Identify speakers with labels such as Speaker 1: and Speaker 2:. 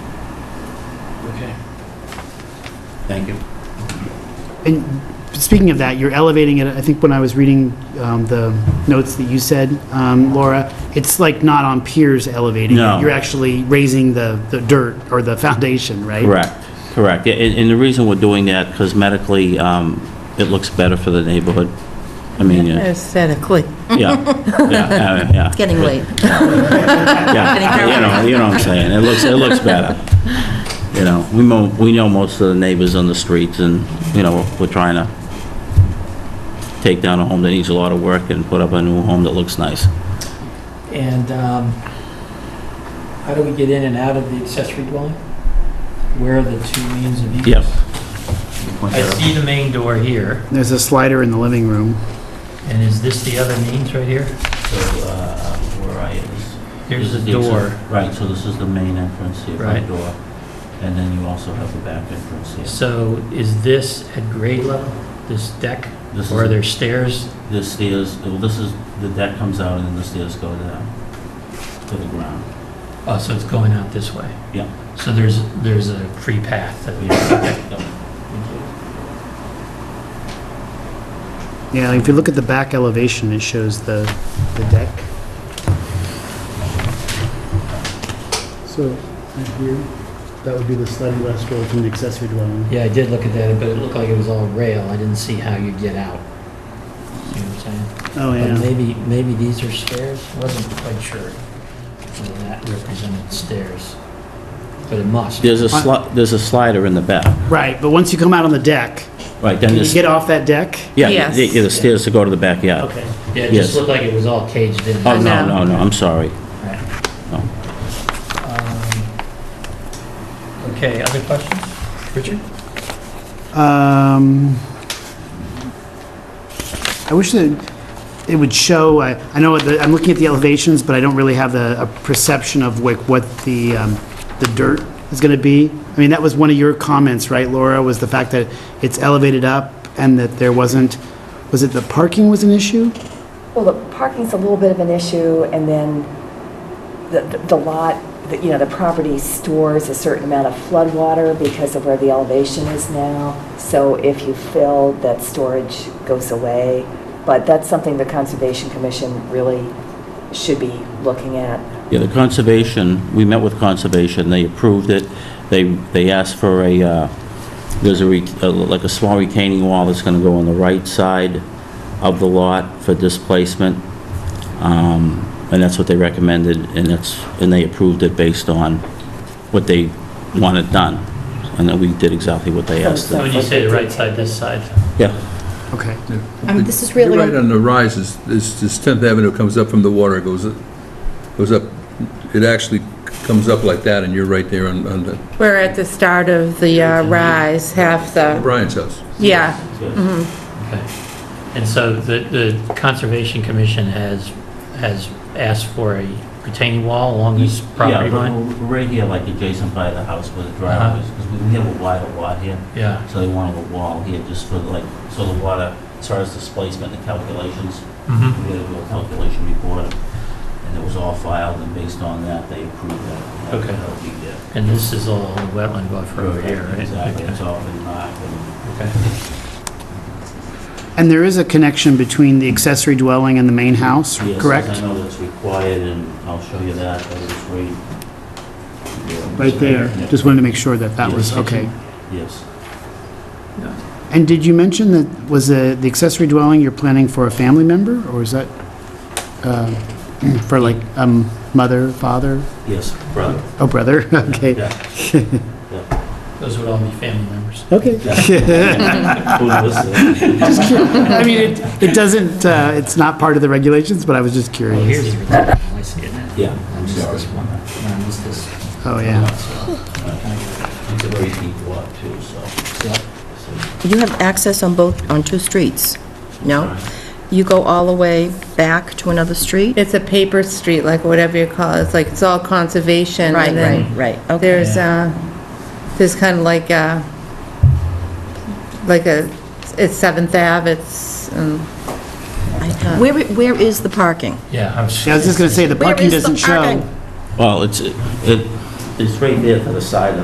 Speaker 1: Okay.
Speaker 2: Thank you.
Speaker 3: And speaking of that, you're elevating it, I think when I was reading um, the notes that you said, um, Laura, it's like not on piers elevating. it.
Speaker 2: No.
Speaker 3: You're actually raising the, the dirt or the foundation, right?
Speaker 2: Correct, correct. Yeah, And, and the reason we're doing that, because medically, um, it looks better for the neighborhood. I mean, yeah,
Speaker 4: Aesthetically.
Speaker 2: yeah, yeah, uh, yeah.
Speaker 4: Getting late.
Speaker 2: Yeah, you know, you know what I'm saying, it looks, it looks better. You know, we know, we know most of the neighbors on the streets, and, you know, we're trying to take down a home that needs a lot of work and put up a new home that looks nice.
Speaker 1: And um, how do we get in and out of the accessory dwelling? Where are the two means of use?
Speaker 2: Yep.
Speaker 1: I see the main door here,
Speaker 3: There's a slider in the living room.
Speaker 1: and is this the other means right here?
Speaker 2: So, uh, where I is.
Speaker 1: There's
Speaker 2: This is
Speaker 1: the
Speaker 2: exit-
Speaker 1: door.
Speaker 2: Right, so this is the main entrance, the front
Speaker 1: Right.
Speaker 2: door, and then you also have the back entrance here.
Speaker 1: So is this at grade level, this deck?
Speaker 2: This
Speaker 1: Or are
Speaker 2: is-
Speaker 1: there stairs?
Speaker 2: The stairs, well, this is, the deck comes out and then the stairs go down to the ground.
Speaker 1: Oh, so it's going out this way?
Speaker 2: Yeah.
Speaker 1: So there's, there's a free path that we...
Speaker 3: Yeah, if you look at the back elevation, it shows the, the deck. So, right here, that would be the sliding glass door from the accessory dwelling.
Speaker 1: Yeah, I did look at that, but it looked like it was all rail. I didn't see how you get out. See what I'm saying?
Speaker 3: Oh,
Speaker 1: But
Speaker 3: yeah.
Speaker 1: maybe, maybe these are stairs? Wasn't quite sure whether that represented stairs, but it must.
Speaker 2: There's a sli, there's a slider in the back,
Speaker 3: Right, but once you come out on the deck,
Speaker 2: right, then
Speaker 3: can you
Speaker 2: there's,
Speaker 3: get off that deck?
Speaker 2: yeah,
Speaker 4: Yes.
Speaker 2: the- yeah, the stairs to go to the backyard.
Speaker 3: Okay.
Speaker 1: Yeah, it
Speaker 2: Yes.
Speaker 1: just looked like it was all caged in.
Speaker 2: Oh, no, no,
Speaker 4: No.
Speaker 2: no, I'm sorry. No.
Speaker 1: Um, Okay, other questions? Richard?
Speaker 3: Um, I wish that it would show, I I know, that- I'm looking at the elevations, but I don't really have the a perception of like what the, um, the dirt is going to be. I mean, that was one of your comments, right, Laura, was the fact that it's elevated up and that there wasn't, was it the parking was an issue?
Speaker 5: Well, the parking's a little bit of an issue, and then the- the the lot, the- you know, the property stores a certain amount of floodwater because of where the elevation is now. So if you fill, that storage goes away. But that's something the Conservation Commission really should be looking at.
Speaker 2: Yeah, the conservation, we met with conservation, they approved it, they, they asked for a, uh, there's a, re- uh, like a small retaining wall that's gonna go on the right side of the lot for displacement, um, and that's what they recommended, and that's, and they approved it based on what they wanted done, and then we did exactly what they asked.
Speaker 1: When
Speaker 2: us.
Speaker 1: you say the right side, this side,
Speaker 2: Yeah,
Speaker 3: Okay.
Speaker 4: Um, This is
Speaker 6: You're
Speaker 4: really,
Speaker 6: right on the rise, is, is is 10th Avenue comes up from the water, it goes, goes up, it actually comes up like that, and you're right there on, on the
Speaker 4: we're at the start of the uh, rise, half the,
Speaker 6: Brian's house.
Speaker 4: yeah.
Speaker 2: Mm.
Speaker 1: okay. And so the, the Conservation Commission has, has asked for a retaining wall along this property
Speaker 2: Yeah,
Speaker 1: line?
Speaker 2: we're- we're right here, like adjacent by the house where the driveway is, because we have a wider lot here.
Speaker 1: Yeah,
Speaker 2: So they wanted a wall here just for like, so the water, as far as displacement and calculations, we
Speaker 1: mhm,
Speaker 2: had to do a calculation report, and it was all filed, and based on that, they approved that.
Speaker 1: Okay.
Speaker 2: That'll be the-
Speaker 1: and this is all wetland buffer over here, right?
Speaker 2: Exactly,
Speaker 1: Okay.
Speaker 2: it's all been marked, and
Speaker 1: Okay.
Speaker 3: And there is a connection between the accessory dwelling and the main house,
Speaker 2: yes, as
Speaker 3: correct?
Speaker 2: I know that's required, and I'll show you that, but it's right. yeah,
Speaker 3: Right there,
Speaker 2: yeah,
Speaker 3: just wanted to make sure that that
Speaker 2: Yes.
Speaker 3: was, okay.
Speaker 2: Yes,
Speaker 3: And did you mention that, was the the accessory dwelling you're planning for a family member, or is that uh, for like um, mother, father,
Speaker 2: yes, brother,
Speaker 3: oh, brother? Okay,
Speaker 2: yeah.
Speaker 1: Those would all be family members.
Speaker 3: okay.
Speaker 2: Who knows?
Speaker 3: Just cur- I mean, it it doesn't, uh, it's not part of the regulations, but I was just
Speaker 1: Well,
Speaker 3: curious.
Speaker 1: here's the retaining wall, I see it now.
Speaker 2: Yeah,
Speaker 1: I
Speaker 2: I'm
Speaker 1: missed
Speaker 2: sorry.
Speaker 1: this one. I missed this.
Speaker 3: Oh, yeah.
Speaker 2: It's a very deep lot, too, so. so-
Speaker 7: You have access on both, on two streets? No? You go all the way back to another street?
Speaker 4: It's a paper street, like whatever you call it, it's like, it's all conservation.
Speaker 7: Right,
Speaker 4: and then
Speaker 7: right, right, okay.
Speaker 4: There's, uh, there's kind of like a, like a, it's Seventh Ave, it's, um,
Speaker 7: Where, where is the parking?
Speaker 1: Yeah, I'm s-
Speaker 3: Yeah, I was just going to say, the
Speaker 7: Where
Speaker 3: parking
Speaker 7: is the
Speaker 3: doesn't show.
Speaker 7: parking?
Speaker 2: Well, it's, it, it's right there to the side of